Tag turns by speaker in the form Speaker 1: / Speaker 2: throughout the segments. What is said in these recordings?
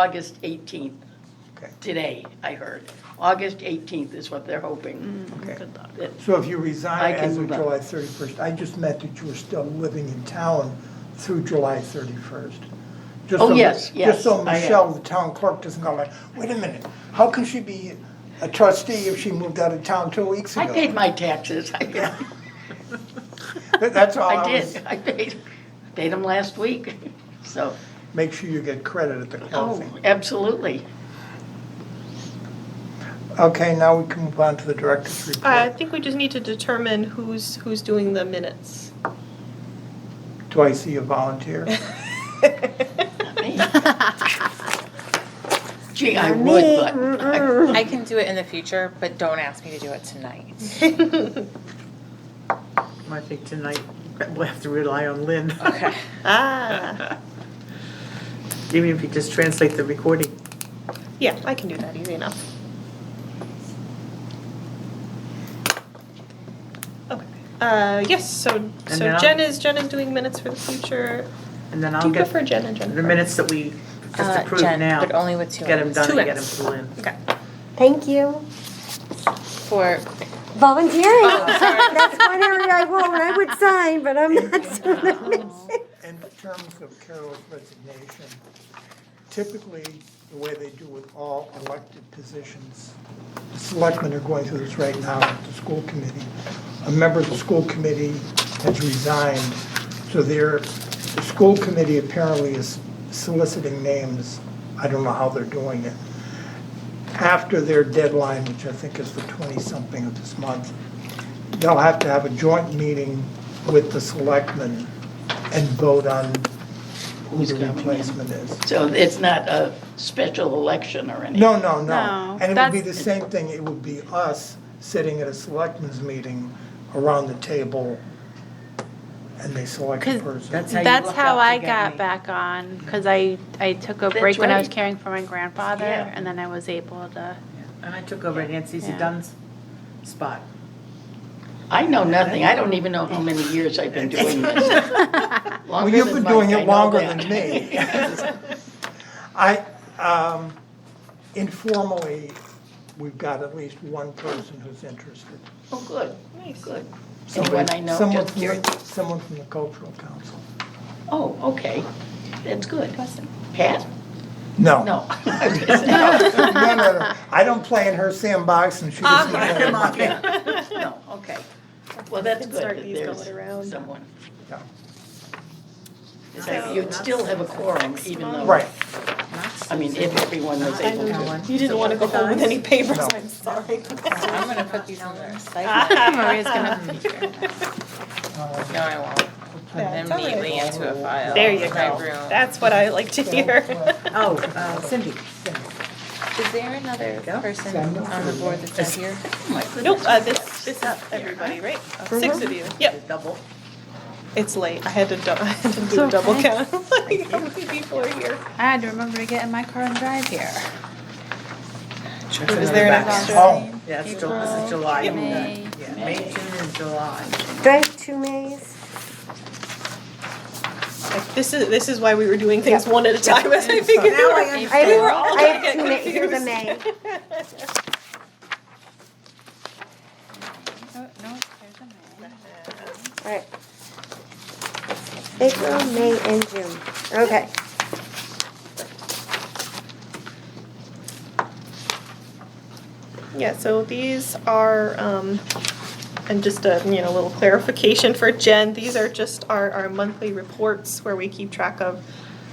Speaker 1: August 18th.
Speaker 2: Okay.
Speaker 1: Today, I heard. August 18th is what they're hoping.
Speaker 2: Okay.
Speaker 1: That-
Speaker 2: So if you
Speaker 1: I
Speaker 2: resign
Speaker 1: can
Speaker 2: as of
Speaker 1: move up.
Speaker 2: July 31st, I just meant that you were still living in town through July 31st. Just
Speaker 1: Oh,
Speaker 2: so-
Speaker 1: yes, yes,
Speaker 2: Just so
Speaker 1: I am.
Speaker 2: Michelle, the town clerk, doesn't go like, wait a minute, how can she be a trustee if she moved out of town two weeks
Speaker 1: I
Speaker 2: ago?
Speaker 1: paid my taxes. I did.
Speaker 2: That- That's all
Speaker 1: I
Speaker 2: I was,
Speaker 1: did. I paid, paid them last week, so.
Speaker 2: make sure you get credit at the
Speaker 1: Oh,
Speaker 2: closing.
Speaker 1: absolutely.
Speaker 2: Okay, now we can move on to the director's
Speaker 3: I
Speaker 2: report.
Speaker 3: think we just need to determine who's, who's doing the minutes.
Speaker 2: Do I see a volunteer?
Speaker 1: Gee, I would, but
Speaker 4: I can do it in the future, but don't ask me to do it tonight.
Speaker 5: I think tonight we'll have to rely on Lynn.
Speaker 4: Okay.
Speaker 3: Ah,
Speaker 5: Even if you just translate the recording.
Speaker 3: yeah, I can do that easy enough. Okay. Uh, yes, so, so
Speaker 5: now-
Speaker 3: Jen is, Jen is doing minutes for the future.
Speaker 5: And then
Speaker 3: Do
Speaker 5: I'll
Speaker 3: you
Speaker 5: get
Speaker 3: prefer Jen or
Speaker 5: the
Speaker 3: Jennifer?
Speaker 5: minutes that we just
Speaker 4: Uh,
Speaker 5: approved
Speaker 4: Jen,
Speaker 5: now.
Speaker 4: but only with two
Speaker 5: Get them
Speaker 4: ends.
Speaker 5: done
Speaker 3: Two
Speaker 5: and get them
Speaker 3: ends.
Speaker 5: to Lynn.
Speaker 3: Okay.
Speaker 6: Thank you.
Speaker 4: For,
Speaker 6: Volunteering. That's one area I will, I would sign, but I'm not.
Speaker 2: In terms of Carol's resignation, typically, the way they do with all elected positions, the selectmen are going through this right now at the school committee. A member of the school committee has resigned, so their, the school committee apparently is soliciting names. I don't know how they're doing it. After their deadline, which I think is the 20-something of this month, they'll have to have a joint meeting with the selectmen and vote on who
Speaker 1: Who's
Speaker 2: the
Speaker 1: coming in.
Speaker 2: replacement is.
Speaker 1: So it's not a special election or anything.
Speaker 2: No, no, no.
Speaker 7: No,
Speaker 2: And it would be the
Speaker 7: that's-
Speaker 2: same thing, it would be us sitting at a selectmen's meeting around the table and they select a
Speaker 7: 'Cause
Speaker 2: person.
Speaker 5: That's how you
Speaker 7: That's
Speaker 5: luck
Speaker 7: how
Speaker 5: out to
Speaker 7: I
Speaker 5: get
Speaker 7: got
Speaker 5: me.
Speaker 7: back on, because I, I took a
Speaker 1: That's
Speaker 7: break when I was
Speaker 1: right.
Speaker 7: caring for my grandfather,
Speaker 1: Yeah.
Speaker 7: and then I was able to.
Speaker 5: And I took over Nancy
Speaker 7: Yeah.
Speaker 5: Dunn's spot.
Speaker 1: I know nothing. I don't even know how many years I've been doing this.
Speaker 2: Well,
Speaker 1: Longer
Speaker 2: you've
Speaker 1: than
Speaker 2: been
Speaker 1: Mike,
Speaker 2: doing
Speaker 1: I
Speaker 2: it
Speaker 1: know
Speaker 2: longer
Speaker 1: that.
Speaker 2: than me. I, um, informally, we've got at least one person who's interested.
Speaker 1: Oh, good,
Speaker 3: Nice.
Speaker 1: good. Anyone
Speaker 2: Somebody-
Speaker 1: I know,
Speaker 2: someone
Speaker 1: just
Speaker 2: from the-
Speaker 1: curious.
Speaker 2: Someone from the cultural council.
Speaker 1: Oh, okay. That's good. Pat?
Speaker 2: No.
Speaker 1: No.
Speaker 2: No, no, no. I don't play in her sandbox and she doesn't play in mine.
Speaker 1: No, okay. Well, that's
Speaker 3: Can
Speaker 1: good
Speaker 3: start
Speaker 1: that
Speaker 3: these going around.
Speaker 1: there's someone.
Speaker 2: Yeah.
Speaker 1: So You'd still have a quorum even though.
Speaker 2: Right.
Speaker 1: I mean, if everyone was able to.
Speaker 3: You didn't want to go home with any papers,
Speaker 2: No.
Speaker 3: I'm sorry.
Speaker 4: I'm gonna put these in the recycle.
Speaker 7: Maria's gonna,
Speaker 4: No, I won't. Put them
Speaker 3: it's all right.
Speaker 4: neatly into a file.
Speaker 3: There you
Speaker 4: in my
Speaker 3: go.
Speaker 4: room.
Speaker 3: That's what I like to hear.
Speaker 5: Oh, uh, Cindy.
Speaker 4: Is there another
Speaker 5: go.
Speaker 4: person on the board that's not here?
Speaker 1: Oh, my goodness.
Speaker 3: Nope, uh, this, this is everybody, right? Six of you, yep.
Speaker 5: Double.
Speaker 3: It's late. I had to, dou- I had to do a double count. Like, how many people are here?
Speaker 7: I had to remember to get in my car and drive here.
Speaker 5: Is
Speaker 3: there an
Speaker 5: extra?
Speaker 2: Oh,
Speaker 5: Yeah, it's Ju- this is July.
Speaker 7: May.
Speaker 5: Yeah, May, June, and July.
Speaker 6: Do I have two Mays?
Speaker 3: Like, this is, this is why we were doing things one at a time, as I figured.
Speaker 6: I have-
Speaker 3: We were all
Speaker 6: I
Speaker 3: gonna
Speaker 6: have
Speaker 3: get
Speaker 6: two Mays, here's
Speaker 3: confused.
Speaker 6: a May.
Speaker 7: Oh, no, there's a man.
Speaker 6: All right. April, May, and June. Okay.
Speaker 3: Yeah, so these are, um, and just a, you know, little clarification for Jen, these are just our, our monthly reports where we keep track of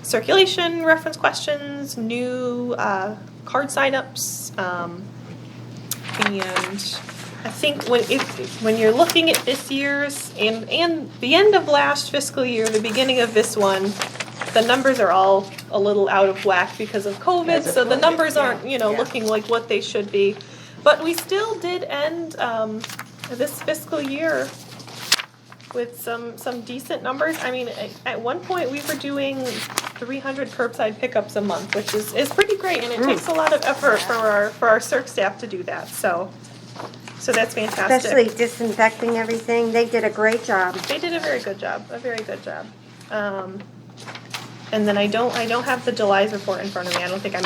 Speaker 3: circulation, reference questions, new, uh, card signups, um, and I think when, if, when you're looking at this year's and, and the end of last fiscal year, the beginning of this one, the numbers are all a little out of whack because of COVID,
Speaker 1: Because of
Speaker 3: so the
Speaker 1: COVID,
Speaker 3: numbers
Speaker 1: yeah,
Speaker 3: aren't, you know,
Speaker 1: yeah.
Speaker 3: looking like what they should be. But we still did end, um, this fiscal year with some, some decent numbers. I mean, at, at one point, we were doing three hundred curbside pickups a month, which is, is pretty great, and it
Speaker 1: Mm.
Speaker 3: takes a lot of effort for our, for our circ staff to do that, so, so that's
Speaker 6: Especially
Speaker 3: fantastic.
Speaker 6: disinfecting everything. They did a great job.
Speaker 3: They did a very good job, a very good job. Um, And then I don't, I don't have the July's report in front of me. I don't think I